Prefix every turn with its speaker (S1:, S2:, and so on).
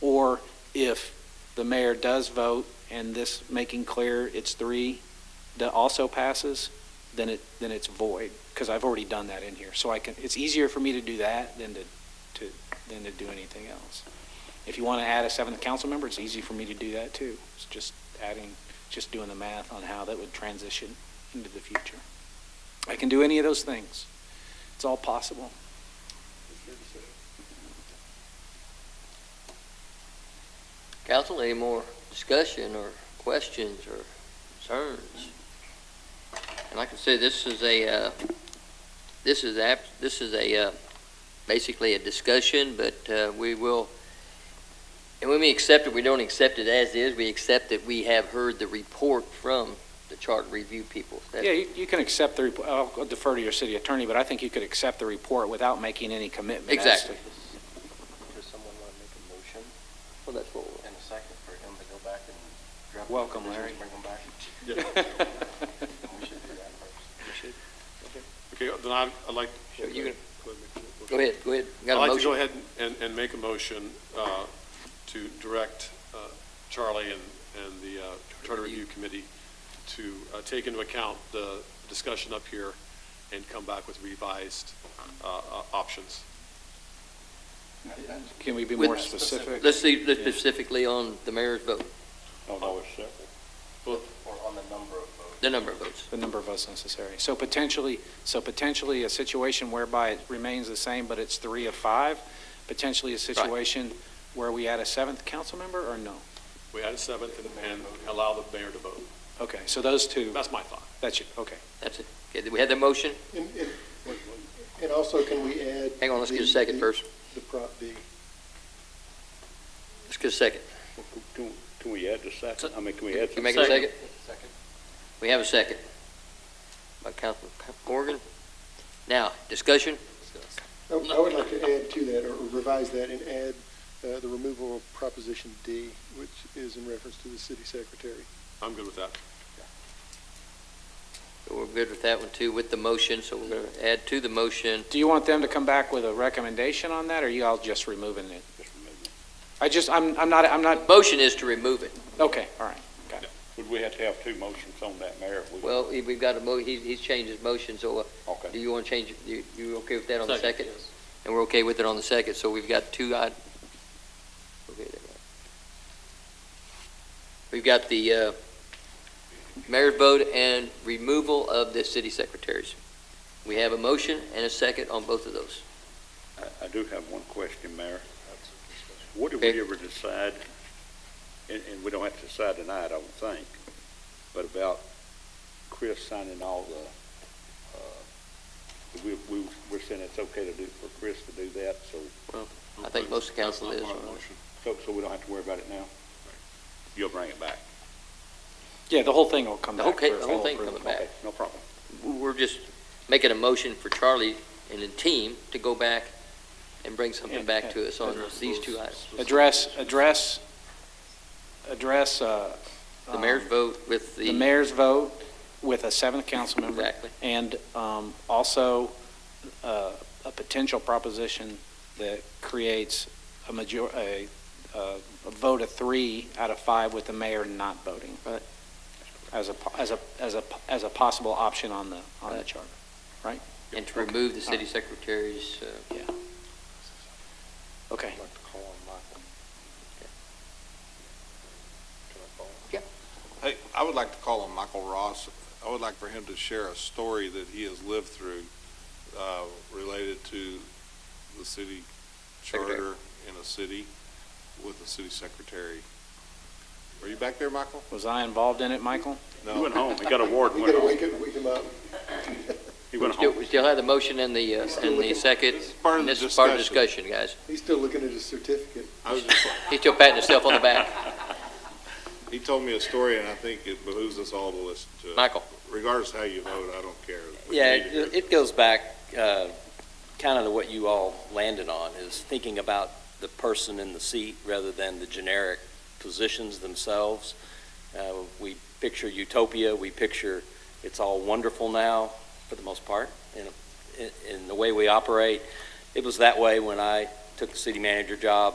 S1: Or if the mayor does vote and this making clear it's three that also passes, then it, then it's void, because I've already done that in here. So I can, it's easier for me to do that than to, to, than to do anything else. If you want to add a seventh council member, it's easy for me to do that too. It's just adding, just doing the math on how that would transition into the future. I can do any of those things. It's all possible.
S2: Council, any more discussion or questions or concerns? And like I said, this is a, uh, this is app, this is a, uh, basically a discussion, but, uh, we will, and when we accept it, we don't accept it as is, we accept that we have heard the report from the chart review people. That-
S1: Yeah, you, you can accept the, report. I'll defer to your city attorney, but I think you could accept the report without making any commitment. as to-
S2: Exactly.
S3: Does someone want to make a motion
S2: Well, that's what we'll-
S3: and a second for him to go back and drop? the
S1: Welcome,
S3: provisions,
S1: Larry.
S3: Bring them back? We should do that first.
S4: Okay, then I'd I'd like.
S2: Sure, you can-
S4: Go ahead,
S2: Go ahead,
S4: make your motion.
S2: go ahead.
S4: I'd
S2: Got a
S4: like to
S2: motion?
S4: go ahead and, and make a motion uh, to direct uh, Charlie and, and the uh, Charter Review Committee to uh, take into account the discussion up here and come back with revised uh, uh, options.
S1: Can we be
S2: With-
S1: more specific?
S2: Let's see, let's specifically on the mayor's vote,
S3: Or on the number of votes.
S2: the number of votes.
S1: The number of votes necessary. So potentially, so potentially a situation whereby it remains the same, but it's three of five, potentially a situation where we add a seventh council member, or no?
S4: We add a seventh and- and allow the mayor to vote.
S1: Okay, so those two,
S4: That's my thought.
S1: that's it, okay.
S2: That's it. Okay, did we have the motion?
S5: And, and- and also, can we add?
S2: Hang on, let's get a
S5: the-
S2: second
S5: the-
S2: first.
S5: The, pro- the,
S2: Let's get a second.
S6: Can, can we add the second? I mean, can we add
S2: Can you make
S6: some?
S2: a second?
S3: Second.
S2: We have a second. By Councilman Morgan. Now, discussion?
S5: I oh, I would like to add to that, or revise that, and add uh, the removal of Proposition D, which is in reference to the city secretary.
S4: I'm good with that.
S2: We're good with that one too, with the motion, so we're going to add to the motion.
S1: Do you want them to come back with a recommendation on that, or you all just removing it? I just, I'm, I'm not, I'm not,
S2: Motion is to remove it.
S1: okay, all right.
S6: Would we have to have two motions on that, Mayor? if we-
S2: Well, he- we've got a mo, he's, he's changed his motion, so uh, do
S6: Okay.
S2: you want to change, it? you, you okay with that on the second? And we're okay with it on the second, so we've got two, i- okay, there. We've got the, uh, mayor's vote and removal of the city secretaries. We have a motion and a second on both of those.
S6: I, I do have one question, Mayor. What did we ever decide, and, and we don't have to decide tonight, I don't think, but about Chris signing all the, uh, we, we, we're saying it's okay to do, for Chris to do that, so,
S2: I think most of council is.
S4: That's not part of the motion.
S6: so, so we don't have to worry about it now? You'll bring it back?
S1: Yeah, the whole thing will come
S2: The
S1: back.
S2: whole, ca-
S1: for
S2: the whole
S1: full
S2: thing
S1: approval.
S2: coming back.
S6: Okay, No problem.
S2: We're just making a motion for Charlie and the team to go back and bring something
S1: And-
S2: back
S1: and
S2: to us on
S4: address
S2: these
S4: those
S2: two items.
S1: Address, address, address, uh.
S2: The mayor's
S1: um,
S2: vote with
S1: The
S2: the,
S1: mayor's vote with a seventh council member.
S2: exactly.
S1: And um, also, uh, a potential proposition that creates a major, a, a a vote of three out of five with the mayor not voting.
S2: Right.
S1: As a, po- as a, as a, as a possible option on the, on the
S2: Right.
S1: charter.
S2: And to remove the city secretary's, uh,
S1: Okay.
S3: I'd like to call on Michael. Can I call him?
S7: Hey, I would like to call on Michael Ross. I would like for him to share a story that he has lived through uh, related to the city
S2: Secretary.
S7: charter in a city with the city secretary. Are you back there, Michael?
S1: Was I involved in it, Michael?
S6: He
S7: No.
S6: went home, he got a ward
S5: We
S6: and went
S5: gotta
S6: home.
S5: wake him, wake him up.
S6: He went
S2: still-
S6: home.
S2: we still have the motion and the, uh, and the second.
S7: This is part of the
S2: This is part of the
S7: discussion.
S2: discussion, guys.
S5: He's still looking at his certificate.
S7: I was just-
S2: He's still patting himself on the back.
S7: He told me a story, and I think it behooves us all to listen to it.
S2: Michael?
S7: Regardless of how you vote, I don't care. We
S3: Yeah,
S7: need to hear
S3: it it goes back uh, kind of to what you all landed on, is thinking about the person in the seat rather than the generic positions themselves. Uh, We picture utopia, we picture it's all wonderful now, for the most part, in, in- in the way we operate. It was that way when I took the city manager job